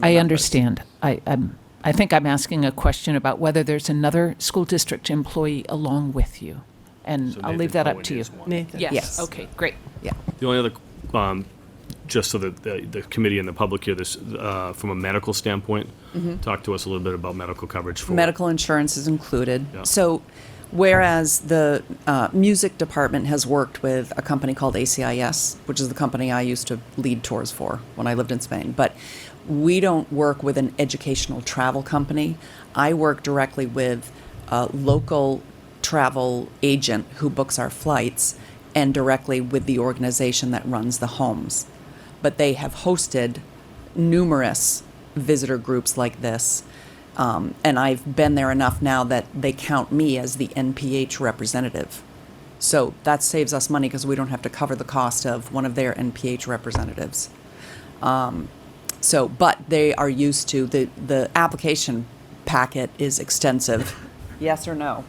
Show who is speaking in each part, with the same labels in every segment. Speaker 1: the
Speaker 2: I
Speaker 1: numbers.
Speaker 2: understand. I, I'm, I think I'm asking a question about whether there's another school district employee along with you. And
Speaker 3: So
Speaker 2: I'll
Speaker 3: Nathan
Speaker 2: leave that up
Speaker 3: Cohen
Speaker 2: to you.
Speaker 3: is one.
Speaker 4: Nathan.
Speaker 2: Yes, okay, great.
Speaker 1: Yeah.
Speaker 3: The only other, um, just so that the, the committee and the public hear this, uh, from a medical standpoint, talk to us a little bit about medical coverage for.
Speaker 1: Medical insurance is included.
Speaker 3: Yeah.
Speaker 1: So whereas the uh, music department has worked with a company called ACIS, which is the company I used to lead tours for when I lived in Spain, but we don't work with an educational travel company. I work directly with a local travel agent who books our flights and directly with the organization that runs the homes. But they have hosted numerous visitor groups like this. Um, and I've been there enough now that they count me as the NPH representative. So that saves us money because we don't have to cover the cost of one of their NPH representatives. Um, So, but they are used to the the application packet is extensive. Yes or no?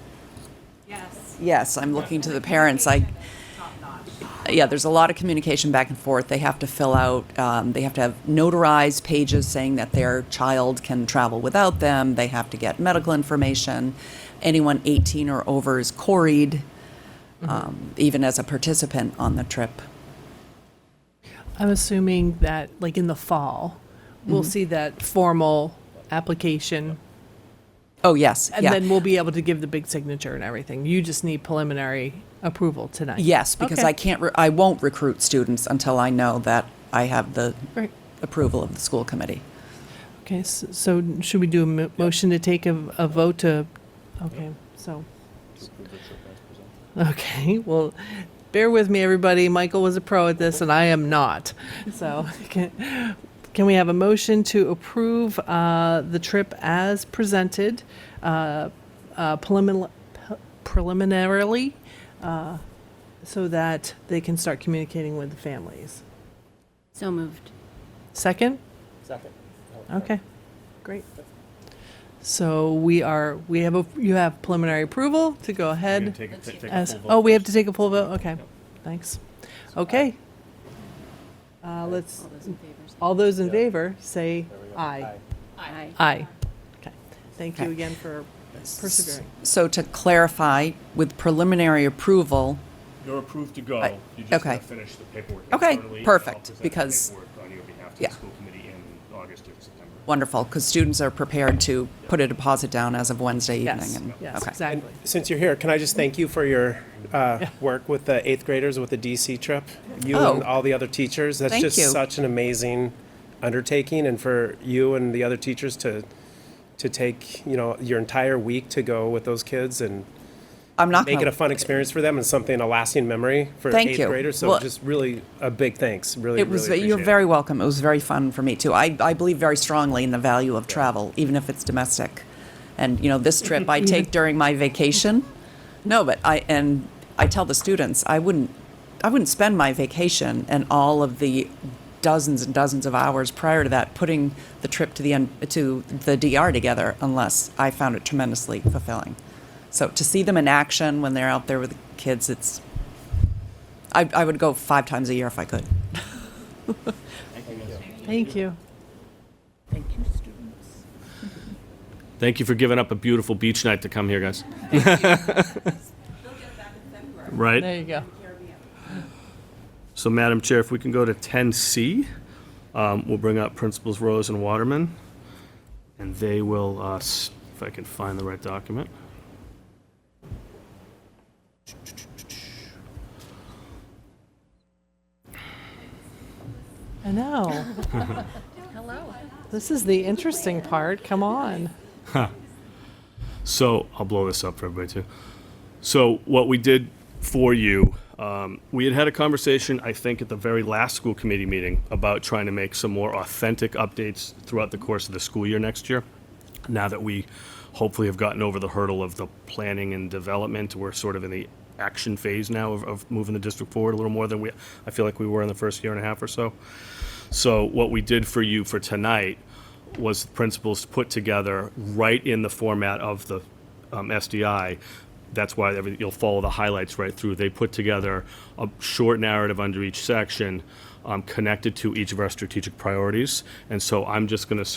Speaker 5: Yes.
Speaker 1: Yes, I'm looking to the parents. I yeah, there's a lot of communication back and forth. They have to fill out, um, they have to have notarized pages saying that their child can travel without them. They have to get medical information. Anyone 18 or over is quarried,
Speaker 4: Mm-hmm.
Speaker 1: um, even as a participant on the trip.
Speaker 4: I'm assuming that, like in the fall, we'll
Speaker 1: Mm-hmm.
Speaker 4: see that formal application,
Speaker 1: Oh, yes.
Speaker 4: and
Speaker 1: yeah.
Speaker 4: then we'll be able to give the big signature and everything. You just need preliminary approval tonight.
Speaker 1: Yes, because
Speaker 4: Okay.
Speaker 1: I can't, re- I won't recruit students until I know that I have the
Speaker 4: Great.
Speaker 1: approval of the school committee.
Speaker 4: Okay, s- so should we do a mo- motion to take a, a vote to, okay, so. Okay, well, bear with me, everybody. Michael was a pro at this and I am not. So can, can we have a motion to approve, uh, the trip as presented, uh, uh, prelimin- pe- preliminarily, uh, so that they can start communicating with the families?
Speaker 5: So moved.
Speaker 4: Second? Second. Okay, great. So we are, we have, a you have preliminary approval to go
Speaker 3: We're gonna
Speaker 4: ahead
Speaker 3: take- take- take a
Speaker 4: as,
Speaker 3: full vote
Speaker 4: oh, we have to
Speaker 3: first.
Speaker 4: take a full vote? Okay, thanks. Okay. Uh, let's,
Speaker 5: All those in favor? say
Speaker 4: all those in favor, say aye.
Speaker 5: Aye.
Speaker 4: Aye. Okay, thank you
Speaker 1: Okay.
Speaker 4: again for persevering.
Speaker 1: So to clarify, with preliminary approval,
Speaker 3: You're approved to go.
Speaker 1: Right.
Speaker 3: You just
Speaker 1: Okay.
Speaker 3: gotta finish the paperwork
Speaker 1: Okay,
Speaker 3: internally, and I'll
Speaker 1: perfect,
Speaker 3: present the
Speaker 1: because-
Speaker 3: paperwork on your behalf to
Speaker 1: Yeah.
Speaker 3: the school committee in August or September.
Speaker 1: wonderful, because students are prepared to put a deposit down as of Wednesday evening.
Speaker 4: Yes,
Speaker 1: and-
Speaker 4: yes,
Speaker 1: okay.
Speaker 4: exactly.
Speaker 6: Since you're here, can I just thank you for your uh, work with the eighth graders with the DC trip? You and
Speaker 1: Oh.
Speaker 6: all the other teachers. That's
Speaker 1: Thank
Speaker 6: just
Speaker 1: you.
Speaker 6: such an amazing undertaking, and for you and the other teachers to to take you know your entire week to go with those kids and
Speaker 1: I'm not
Speaker 6: make it
Speaker 1: going
Speaker 6: a fun experience for them and something a lasting memory for
Speaker 1: Uh-huh. Thank
Speaker 6: eighth
Speaker 1: you.
Speaker 6: graders. So
Speaker 1: Well-
Speaker 6: just really a big thanks. Really,
Speaker 1: It was,
Speaker 6: really
Speaker 1: you're
Speaker 6: appreciate it.
Speaker 1: very welcome. It was very fun for me, too. I, I believe very strongly in the value of travel, even if it's domestic. And, you know, this trip I take during my vacation. No, but I, and I tell the students, I wouldn't, I wouldn't spend my vacation and all of the dozens and dozens of hours prior to that putting the trip to the, N- to the DR together unless I found it tremendously fulfilling. So to see them in action when they're out there with the kids, it's, I, I would go five times a year if I could.
Speaker 4: Thank you.
Speaker 3: Thank you for giving up a beautiful beach night to come here, guys.
Speaker 4: There
Speaker 3: Right?
Speaker 4: you go.
Speaker 3: So Madam Chair, if we can go to 10C, um, we'll bring up Principals Rose and Waterman, and they will, uh, s- if I can find the right document.
Speaker 4: I know. Hello. This is the interesting part. Come on.
Speaker 3: So I'll blow this up for everybody too. So what we did for you, um, we had had a conversation, I think, at the very last school committee meeting about trying to make some more authentic updates throughout the course of the school year next year. Now that we hopefully have gotten over the hurdle of the planning and development, we're sort of in the action phase now of, of moving the district forward a little more than we, I feel like we were in the first year and a half or so. So what we did for you for tonight was the principals put together right in the format of the um, SDI. That's why every, you'll follow the highlights right through. They put together a short narrative under each section, um, connected to each of our strategic priorities. And so I'm just going to